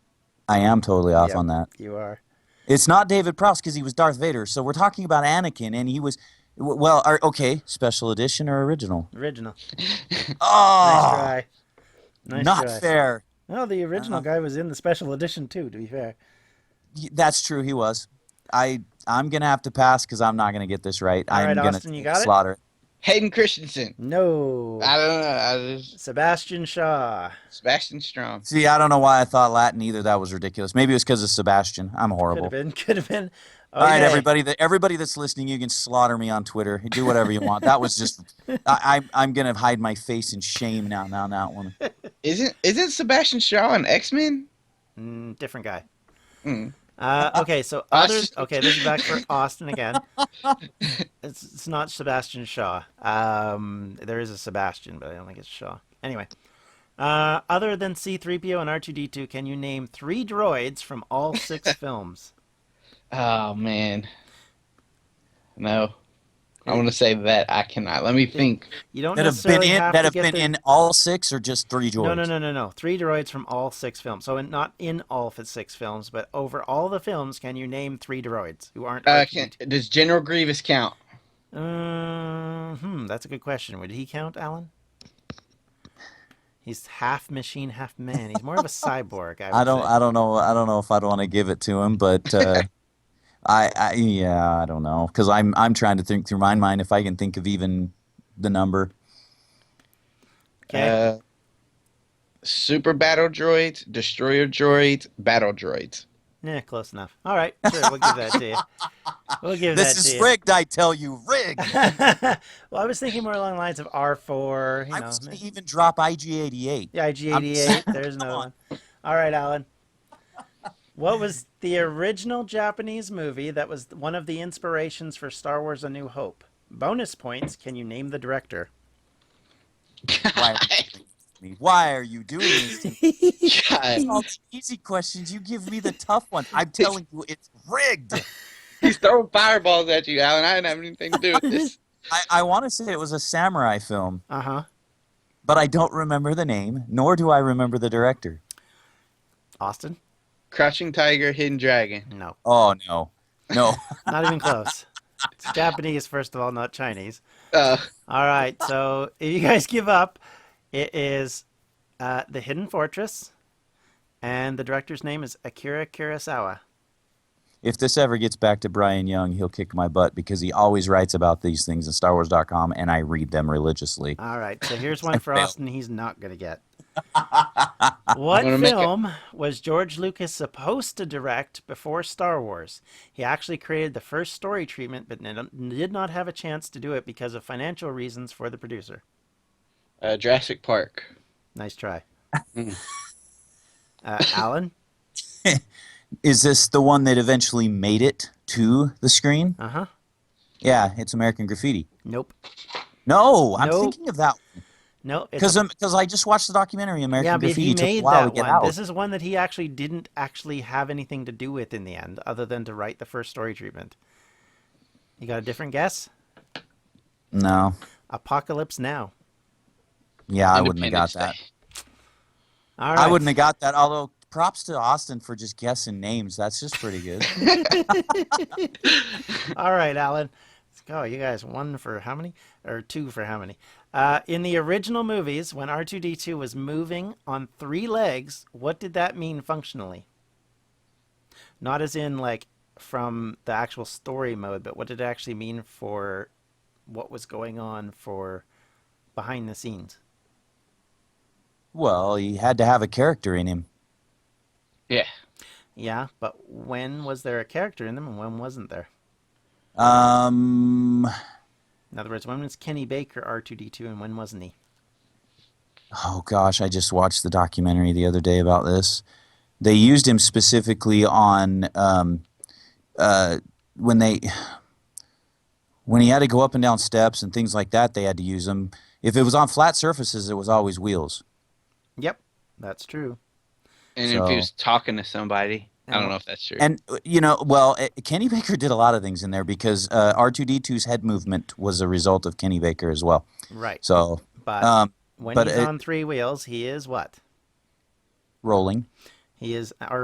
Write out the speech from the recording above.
I am totally off Yep. on that. You are. It's not David Prowse because he was Darth Vader. So we're talking about Anakin, and he was. w- Well, are, okay, special edition or original? Original. Nice Oh, try. Nice not try. fair. No, the original Uh-huh. guy was in the special edition too, to be fair. Y- That's true. He was. I I'm gonna have to pass because I'm not gonna get this right. All I'm right, gonna Austin, you got it? slaughter. Hayden Christensen. No. Ah. I don't know. I just, Sebastian Shaw. Sebastian Strong. See, I don't know why I thought Latin either. That was ridiculous. Maybe it was because of Sebastian. I'm Could horrible. have been. Could have been. Oh, All right, Okay. everybody. That everybody that's listening, you can slaughter me on Twitter. Do whatever you want. That was just. I, I I'm gonna hide my face in shame now. Now that one. Isn't isn't Sebastian Shaw an X Men? Mm, different guy. Hmm. Uh, okay, so others. Austin. Okay, this is back for Austin again. It's, it's not Sebastian Shaw. Um, there is a Sebastian, but I don't think it's Shaw. Anyway, uh, other than C3PO and R2D2, can you name three droids from all six films? Oh man. No. I want to say that I cannot. Let me think. You don't That have been necessarily in. have That to have get been the- in all six or just three droids. No, no, no, no, no. Three droids from all six films. So in, not in all f- six films, but over all the films, can you name three droids who aren't? Uh, R2D2? can, does General Grievous count? Uh, hmm, that's a good question. Would he count, Alan? He's half machine, half man. He's more of a cyborg, I would I don't. say. I don't know. I don't know if I'd want to give it to him, but uh, I, I. Yeah, I don't know because I'm. I'm trying to think through my mind if I can think of even the number. Okay. Uh, super battle droids, destroyer droids, battle droids. yeah, close enough. All right, sure, we'll give that to you. We'll give This that is to you. rigged, I tell you, rigged. well, I was thinking more along the lines of R4, you I know. was gonna even drop IG88. Yeah, I'm- IG88. There's another one. All right, Alan. What was the original Japanese movie that was one of the inspirations for Star Wars A New Hope? Bonus points. Can you name the director? Why? Why are you doing this? to me? God. All the easy questions, you give me the tough ones. I'm telling you, it's rigged. He's throwing fireballs at you, Alan. I didn't have anything to do with this. I, I want to say it was a samurai film, Uh huh. but I don't remember the name, nor do I remember the director. Austin? Crouching Tiger, Hidden Dragon. No. Oh no, no. Not even close. It's Japanese, first of all, not Chinese. Uh, All right, so if you guys give up, it is uh, The Hidden Fortress, and the director's name is Akira Kurosawa. If this ever gets back to Brian Young, he'll kick my butt because he always writes about these things in StarWars.com, and I read them religiously. All right, so here's one for failed. Austin he's not going to get. What gonna make it. film was George Lucas supposed to direct before Star Wars? He actually created the first story treatment, but n- did not have a chance to do it because of financial reasons for the producer. uh, Jurassic Park. Nice try. Mm. Uh, Alan? Is this the one that eventually made it to the screen? Uh huh. Yeah, it's American Graffiti. Nope. No, I'm Nope. thinking of that No, it's because because I just watched the documentary American yeah, but Graffiti. he It took a made while that to get one. out. This is one that he actually didn't actually have anything to do with in the end, other than to write the first story treatment. You got a different guess? no, Apocalypse Now. yeah, I wouldn't have got Independence that. Day. All I right. wouldn't have got that. Although props to Austin for just guessing names. That's just pretty good. All right, Alan. Let's go. You guys, one for how many? Or two for how many? Uh, in the original movies, when R2D2 was moving on three legs, what did that mean functionally? Not as in, like, from the actual story mode, but what did it actually mean for what was going on for behind the scenes? well, he had to have a character in him. Yeah. Yeah, but when was there a character in them and when wasn't there? Um, In other words, when was Kenny Baker R2D2 and when wasn't he? oh gosh, I just watched the documentary the other day about this. They used him specifically on um, uh, when they when he had to go up and down steps and things like that. They had to use him. If it was on flat surfaces, it was always wheels. Yep, that's true. And So- if he was talking to somebody, I Yeah. don't know if that's true. And uh, you know, well, uh, Kenny Baker did a lot of things in there because uh, R2D2's head movement was a result of Kenny Baker as well. Right. So But um, when but he's it- on three wheels, he is what? rolling. He is